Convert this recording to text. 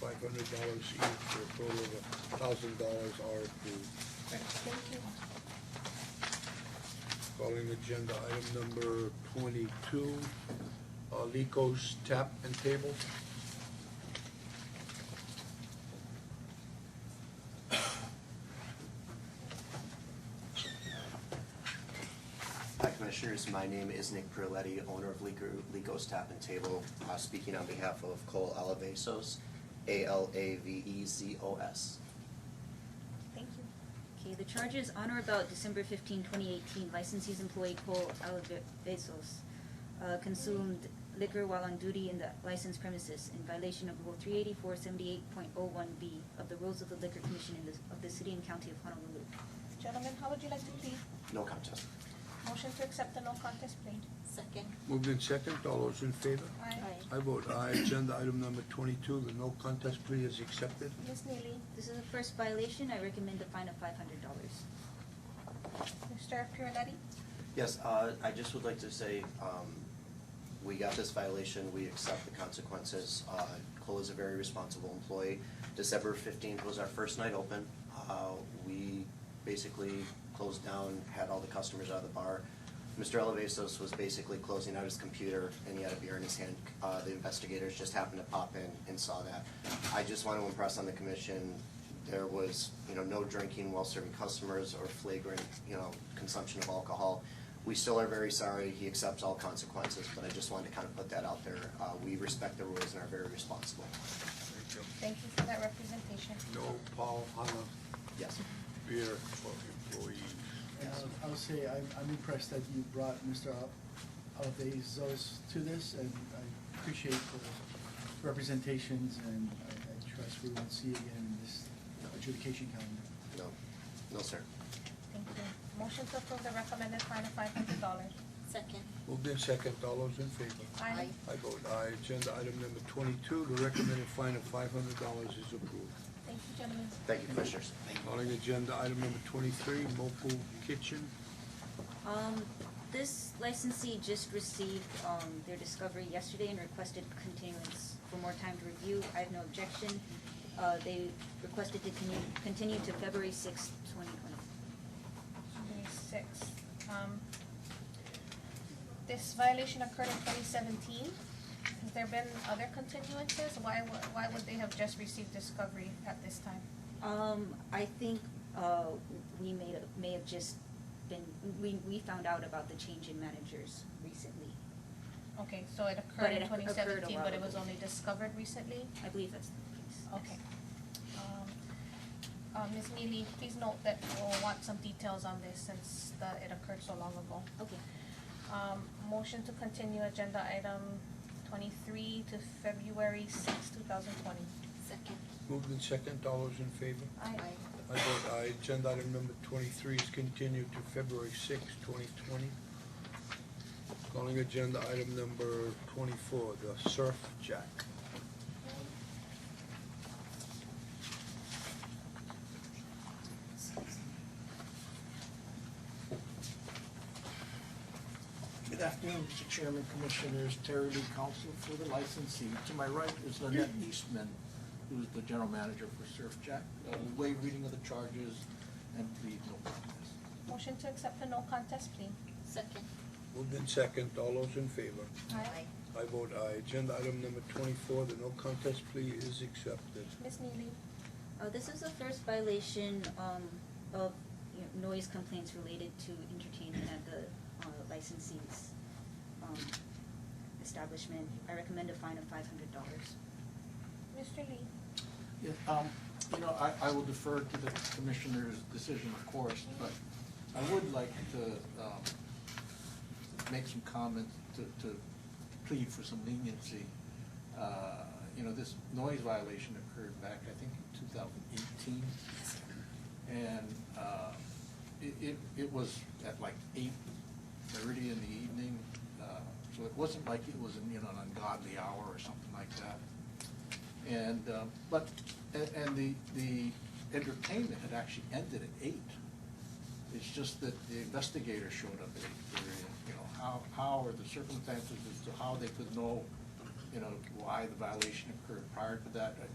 hundred dollars each for a total of thousand dollars are approved. Calling agenda item number twenty-two, uh, Lico's Tap and Table. Hi Commissioners, my name is Nick Perletti, owner of Lico- Lico's Tap and Table, uh, speaking on behalf of Cole Alavezos, E A-L-A-V-E-Z-O-S. Thank you. Okay, the charges on or about December 15, 2018, licensee's employee Cole Alvezos uh, consumed liquor while on duty in the licensed premises in violation of Rule 38478.01B of the Rules of the Liquor Commission in the- of the City and County of Honolulu. Gentlemen, how would you like to plead? No contest. Motion to accept the no contest plea. Second. Moved in second, all those in favor? Aye. I vote aye, agenda item number twenty-two, the no contest plea is accepted. Ms. Neely, This is a first violation. I recommend a fine of $500. Mr. Pirletti, Yes, uh, I just would like to say, um, we got this violation, we accept the consequences. Uh, Cole is a very responsible employee. December fifteenth was our first night open. Uh, we basically closed down, had all the customers out of the bar. Mr. Elevasos was basically closing out his computer and he had a beer in his hand. Uh, the investigators just happened to pop in and saw that. I just want to impress on the commission, there was, you know, no drinking while serving customers or flagrant, you know, consumption of alcohol. We still are very sorry, he accepts all consequences, but I just wanted to kind of put that out there. Uh, we respect the rules and are very responsible. Thank you. thank you for that representation. No Paul Hana Yes. beer for employees. And Uh, I- I would say I'm, I'm impressed that you brought Mr. Alvezos to this, and I appreciate the representations, and I, I trust we won't see again in this adjudication calendar. No, no, sir. Thank you. Motion to approve the recommended fine of five hundred dollars. Second. Moved in second, all those in favor? Aye. I vote aye, agenda item number twenty-two, the recommended fine of five hundred dollars is approved. Thank you, gentlemen. Thank you, commissioners. Calling agenda item number twenty-three, Mopu Kitchen. Um, this licensee just received, um, their discovery yesterday and requested continuance for more time to review. I have no objection. Uh, they requested to continue, continue to February sixth, twenty twenty. May sixth. Um, this violation occurred in twenty seventeen. Has there been other continuances? Why would, why would they have just received discovery at this time? Um, I think, uh, we may, may have just been, we, we found out about the change in managers recently. Okay, so it But occurred in it occurred a twenty seventeen, while but it ago. was only discovered recently? I believe that's the case. Okay. Um, uh, Ms. Neely, please note that we'll want some details on this since the, it occurred so long ago. Okay, Um, motion to continue agenda item twenty-three to February sixth, two thousand twenty. Second. Moved in second, all those in favor? Aye. I vote aye, agenda item number twenty-three is continued to February sixth, twenty twenty. Calling agenda item number twenty-four, the Surf Jack. Good afternoon, Mr. Chairman, Commissioners, Terry Lee, counsel for the licensee. To my right is Lynette Eastman, who's the general manager for Surf Jack. Uh, we Waive reading of the charges and plead no contest. Motion to accept the no contest plea. Second. Moved in second, all those in favor? Aye. I vote aye, agenda item number twenty-four, the no contest plea is accepted. Ms. Neely, uh, this is the first violation, um, of, you know, noise complaints related to entertainment at the, uh, licensee's, um, establishment. I recommend a fine of five hundred dollars. Mr. Lee, Yeah, um, You know, I, I will defer to the commissioner's decision, of course, but I would like to um, make some comments to, to plead for some leniency. Uh, You know, this noise violation occurred back, I think, in 2018. And uh, it, it, it was at like 8:30 in the evening, uh, so it wasn't like it was, you know, an ungodly hour or something like that. And, uh, but, and, and the, the entertainment had actually ended at eight. It's just that the investigator showed up at eight thirty, and, you know, how, how are the circumstances as to how they could know, you know, why the violation occurred prior to that, I